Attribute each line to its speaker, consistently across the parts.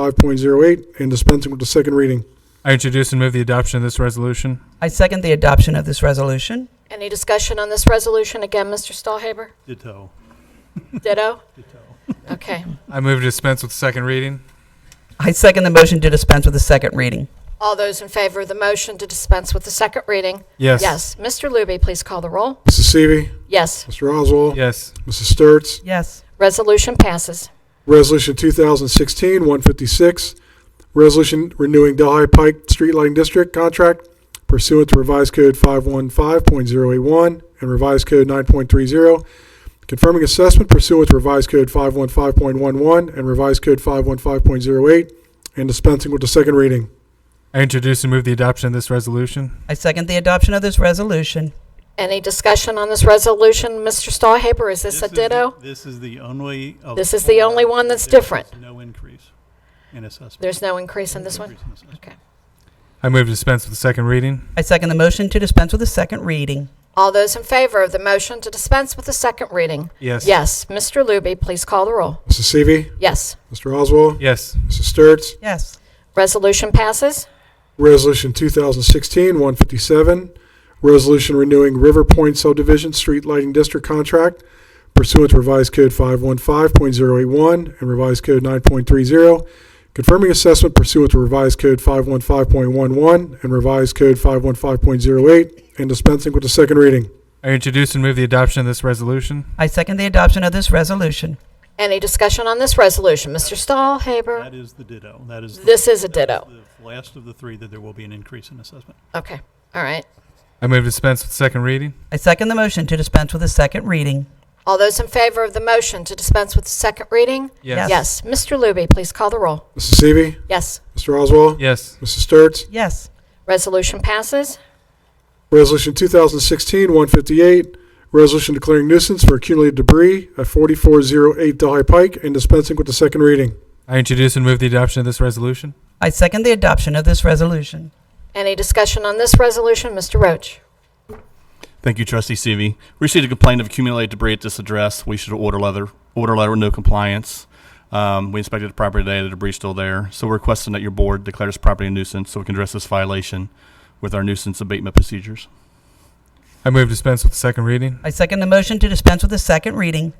Speaker 1: 515.08 and dispensing with the second reading.
Speaker 2: I introduce and move the adoption of this resolution.
Speaker 3: I second the adoption of this resolution.
Speaker 4: Any discussion on this resolution? Again, Mr. Stahlhaber?
Speaker 5: Ditto.
Speaker 4: Ditto? Okay.
Speaker 2: I move to dispense with the second reading.
Speaker 3: I second the motion to dispense with the second reading.
Speaker 4: All those in favor of the motion to dispense with the second reading?
Speaker 2: Yes.
Speaker 4: Mr. Luby, please call the roll.
Speaker 1: Mrs. Seavey.
Speaker 4: Yes.
Speaker 1: Mr. Oswald.
Speaker 2: Yes.
Speaker 1: Mrs. Sturts.
Speaker 3: Yes.
Speaker 4: Resolution passes.
Speaker 1: Resolution 2016-156, resolution renewing Delhi Pike Street Lighting District contract pursuant to revised code 515.081 and revised code 9.30, confirming assessment pursuant to revised code 515.11 and revised code 515.08, and dispensing with the second reading.
Speaker 2: I introduce and move the adoption of this resolution.
Speaker 3: I second the adoption of this resolution.
Speaker 4: Any discussion on this resolution? Mr. Stahlhaber, is this
Speaker 5: This
Speaker 4: a
Speaker 5: is the-
Speaker 4: ditto?
Speaker 5: This is the only. of
Speaker 4: This is the only
Speaker 5: four
Speaker 4: one that's
Speaker 5: that there's
Speaker 4: different.
Speaker 5: No increase in assessment.
Speaker 4: There's no increase in this one?
Speaker 5: Increase in assessment.
Speaker 4: Okay.
Speaker 2: I move to dispense with the second reading.
Speaker 3: I second the motion to dispense with the second reading.
Speaker 4: All those in favor of the motion to dispense with the second reading?
Speaker 2: Yes.
Speaker 4: Yes. Mr. Luby, please call the roll.
Speaker 1: Mrs. Seavey.
Speaker 4: Yes.
Speaker 1: Mr. Oswald.
Speaker 2: Yes.
Speaker 1: Mrs. Sturts.
Speaker 3: Yes.
Speaker 4: Resolution passes.
Speaker 1: Resolution 2016-157, resolution renewing River Point subdivision street lighting district contract pursuant to revised code 515.081 and revised code 9.30, confirming assessment pursuant to revised code 515.11 and revised code 515.08, and dispensing with the second reading.
Speaker 2: I introduce and move the adoption of this resolution.
Speaker 3: I second the adoption of this resolution.
Speaker 4: Any discussion on this resolution? Mr. Stahlhaber?
Speaker 5: That is the ditto. That is. the-
Speaker 4: This is a
Speaker 5: that's
Speaker 4: ditto.
Speaker 5: the Last of the three that there will be an increase in assessment.
Speaker 4: Okay. All right.
Speaker 2: I move to dispense with the second reading.
Speaker 3: I second the motion to dispense with the second reading.
Speaker 4: All those in favor of the motion to dispense with the second reading?
Speaker 2: Yes.
Speaker 4: Yes. Mr. Luby, please call the roll.
Speaker 1: Mrs. Seavey.
Speaker 4: Yes.
Speaker 1: Mr. Oswald.
Speaker 2: Yes.
Speaker 1: Mrs. Sturts.
Speaker 3: Yes.
Speaker 4: Resolution passes.
Speaker 1: Resolution 2016-158, resolution declaring nuisance for accumulated debris at 4408 Delhi Pike and dispensing with the second reading.
Speaker 2: I introduce and move the adoption of this resolution.
Speaker 3: I second the adoption of this resolution.
Speaker 4: Any discussion on this resolution? Mr. Roach.
Speaker 6: Thank you, Trustee Seavey. We Received a complaint of accumulated debris at this address. We should order leather, order letter with no compliance. Um, we inspected the property today. The debris is still there. So we're requesting that your board declare this property a nuisance so we can address this violation with our nuisance abatement procedures.
Speaker 2: I move to dispense with the second reading.
Speaker 3: I second the motion to dispense with the second reading.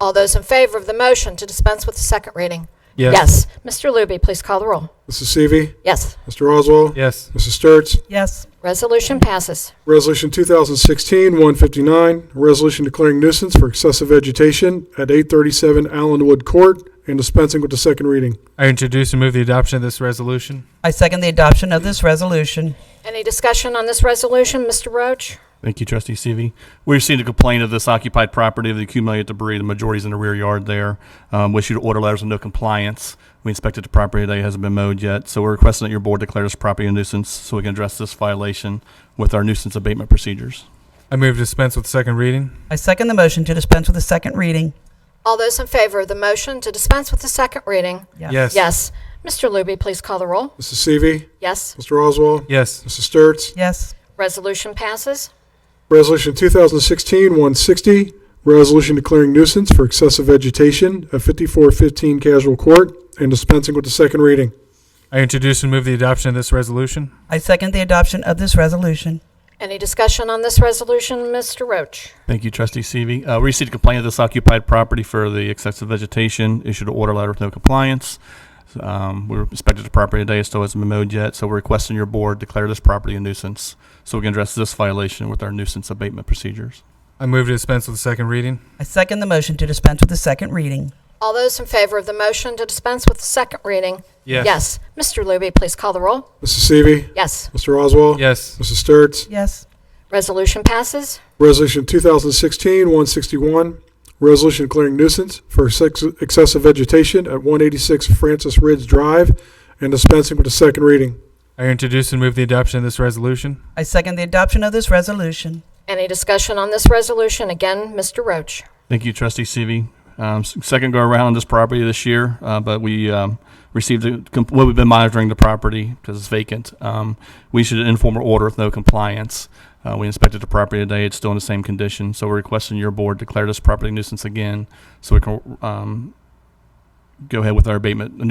Speaker 4: All those in favor of the motion to dispense with the second reading? Mr. Luby, please call the roll.
Speaker 1: Mrs. Seavey.
Speaker 4: Yes.
Speaker 1: Mr. Oswald.
Speaker 2: Yes.
Speaker 1: Mrs. Sturts.
Speaker 3: Yes.
Speaker 4: Resolution passes.
Speaker 1: Resolution 2016-159, resolution declaring nuisance for excessive vegetation at 837 Allenwood Court and dispensing with the second reading.
Speaker 2: I introduce and move the adoption of this resolution.
Speaker 3: I second the adoption of this resolution.
Speaker 4: Any discussion on this resolution? Mr. Roach.
Speaker 6: Thank you, Trustee Seavey. We received a complaint of this occupied property of the accumulated debris. The majority's in the rear yard there. Um, we issued order letters with no compliance. We inspected the property today. It hasn't been mowed yet. So we're requesting that your board declare this property a nuisance so we can address this violation with our nuisance abatement procedures.
Speaker 2: I move to dispense with the second reading.
Speaker 3: I second the motion to dispense with the second reading.
Speaker 4: All those in favor of the motion to dispense with the second reading?
Speaker 2: Yes.
Speaker 4: Yes. Mr. Luby, please call the roll.
Speaker 1: Mrs. Seavey.
Speaker 4: Yes.
Speaker 1: Mr. Oswald.
Speaker 2: Yes.
Speaker 1: Mrs. Sturts.
Speaker 3: Yes.
Speaker 4: Resolution passes.
Speaker 1: Resolution 2016-160, resolution declaring nuisance for excessive vegetation at 5415 Casual Court and dispensing with the second reading.
Speaker 2: I introduce and move the adoption of this resolution.
Speaker 3: I second the adoption of this resolution.
Speaker 4: Any discussion on this resolution? Mr. Roach.
Speaker 6: Thank you, Trustee Seavey. Uh, we received a complaint of this occupied property for the excessive vegetation, issued an order letter with no compliance. Um, we inspected the property today, it still hasn't been mowed yet, so we're requesting your board declare this property a nuisance so we can address this violation with our nuisance abatement procedures.
Speaker 2: I move to dispense with the second reading.
Speaker 3: I second the motion to dispense with the second reading.
Speaker 4: All those in favor of the motion to dispense with the second reading? Yes. Mr. Luby, please call the roll.
Speaker 1: Mrs. Seavey.
Speaker 4: Yes.
Speaker 1: Mr. Oswald.
Speaker 2: Yes.
Speaker 1: Mrs. Sturts.
Speaker 3: Yes.
Speaker 4: Resolution passes.
Speaker 1: Resolution 2016-161, resolution declaring nuisance for sex- excessive vegetation at 186 Francis Ridge Drive and dispensing with the second reading.
Speaker 2: I introduce and move the adoption of this resolution.
Speaker 3: I second the adoption of this resolution.
Speaker 4: Any discussion on this resolution? Again, Mr. Roach.
Speaker 6: Thank you, Trustee Seavey. Um, s- second go around on this property this year, uh, but we um, received a comp- well, we've been monitoring the property because it's vacant. Um, we issued an informal order with no compliance. Uh, we inspected the property today; it's still in the same condition. So we're requesting your board declare this property nuisance again, so we can um, go ahead with our abatement